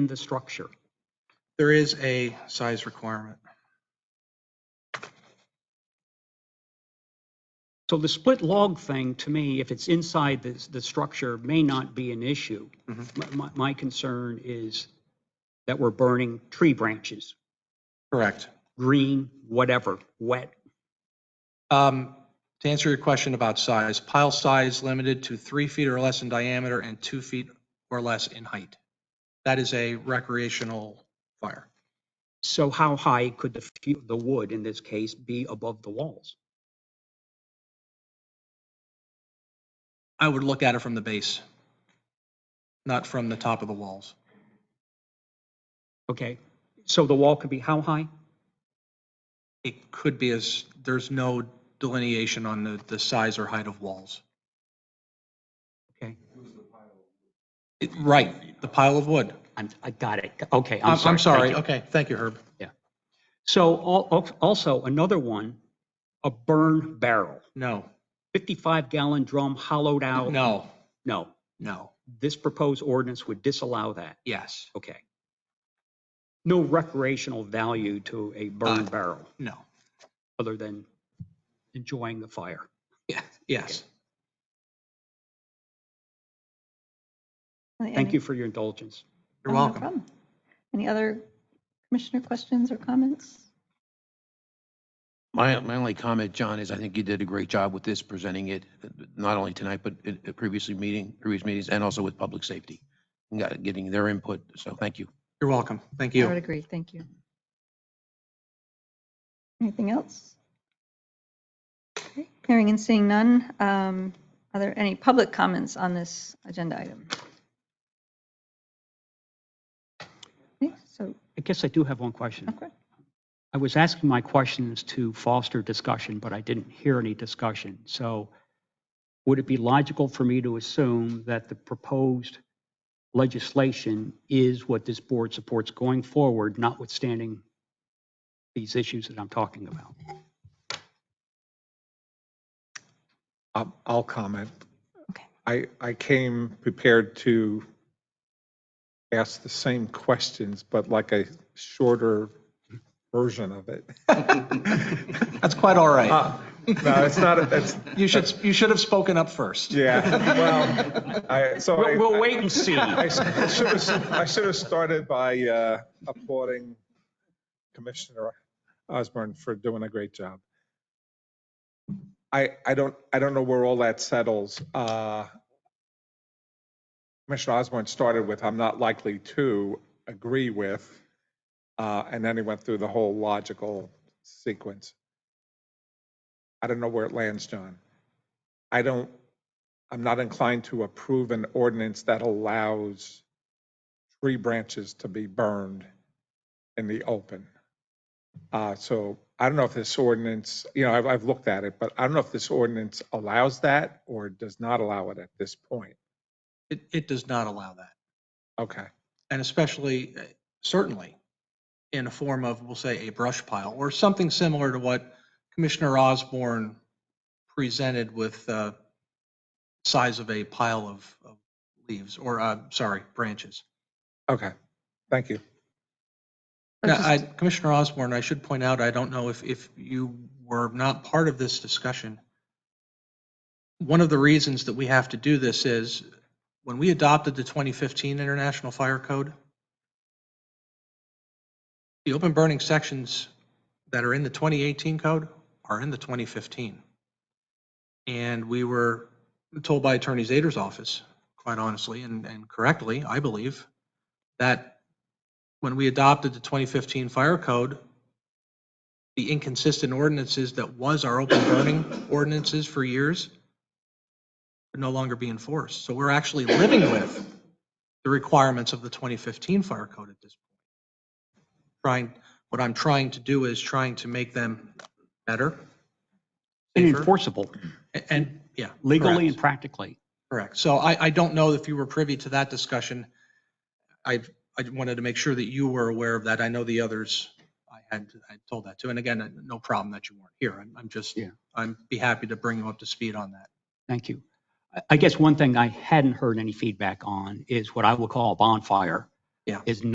in the structure? There is a size requirement. So the split log thing, to me, if it's inside the, the structure, may not be an issue. My- My, my concern is that we're burning tree branches, Correct. green, whatever, wet. Um, To answer your question about size, pile size limited to three feet or less in diameter and two feet or less in height. That is a recreational fire. So how high could the, fu- the wood in this case be above the walls? I would look at it from the base, not from the top of the walls. Okay, so the wall could be how high? It could be as, there's no delineation on the, the size or height of walls. Okay, It- Right, the pile of wood. I'm, I got it. Okay, I'm I'm, sorry. I'm sorry. Thank you. Okay, thank you, Herb. So al- al- also another one, a burn barrel, No, 55 gallon drum hollowed out. no, No, no, this proposed ordinance would disallow that. yes, Okay. No recreational value to a burn Uh, barrel no, other than enjoying the fire. yeah, yes. Thank you for your indulgence. You're oh, No welcome. problem. Any other commissioner questions or comments? My, my only comment, John, is I think you did a great job with this, presenting it, uh, not only tonight, but at at previously meeting, previous meetings, and also with public safety. and got- Getting their input, so thank you. You're welcome. Thank I would you. agree. Thank you. Anything else? Okay, Hearing and seeing none. Um, Are there any public comments on this agenda item? Okay, So, I guess I do have one question. okay. I was asking my questions to foster discussion, but I didn't hear any discussion. So would it be logical for me to assume that the proposed legislation is what this board supports going forward, notwithstanding these issues that I'm talking about? I'll I'll comment. Okay. I, I came prepared to ask the same questions, but like a shorter version of it. That's quite all right. Uh, No, it's not, it's, You should, you should have spoken up first. yeah, well, I, so I. We'll, we'll wait and see. I should have, I should have started by uh, applauding Commissioner Osborne for doing a great job. I, I don't, I don't know where all that settles. Uh, Commissioner Osborne started with, I'm not likely to agree with, uh, and then he went through the whole logical sequence. I don't know where it lands, John. I don't, I'm not inclined to approve an ordinance that allows tree branches to be burned in the open. Uh, so I don't know if this ordinance, you know, I've, I've looked at it, but I don't know if this ordinance allows that or does not allow it at this point. It, it does not allow that. Okay, And especially, uh, certainly, in a form of, we'll say, a brush pile or something similar to what Commissioner Osborne presented with the size of a pile of of leaves or, uh, sorry, branches. okay, thank you. Now, I, Commissioner Osborne, I should point out, I don't know if, if you were not part of this discussion. One of the reasons that we have to do this is when we adopted the 2015 International Fire Code, the open burning sections that are in the 2018 code are in the 2015. And we were told by Attorney Zader's office, quite honestly, and, and correctly, I believe, that when we adopted the 2015 fire code, the inconsistent ordinances that was our open burning ordinances for years are no longer being enforced. So we're actually living with the requirements of the 2015 fire code at this point. Trying, what I'm trying to do is trying to make them better. And safer, enforceable a- And, yeah. legally correct. and practically. Correct. So I, I don't know if you were privy to that discussion. I, I wanted to make sure that you were aware of that. I know the others, I had, I told that to. And again, no problem that you weren't here. I'm, I'm just, Yeah. I'm be happy to bring you up to speed on that. Thank you. I- I guess one thing I hadn't heard any feedback on is what I will call a bonfire. Yeah. Is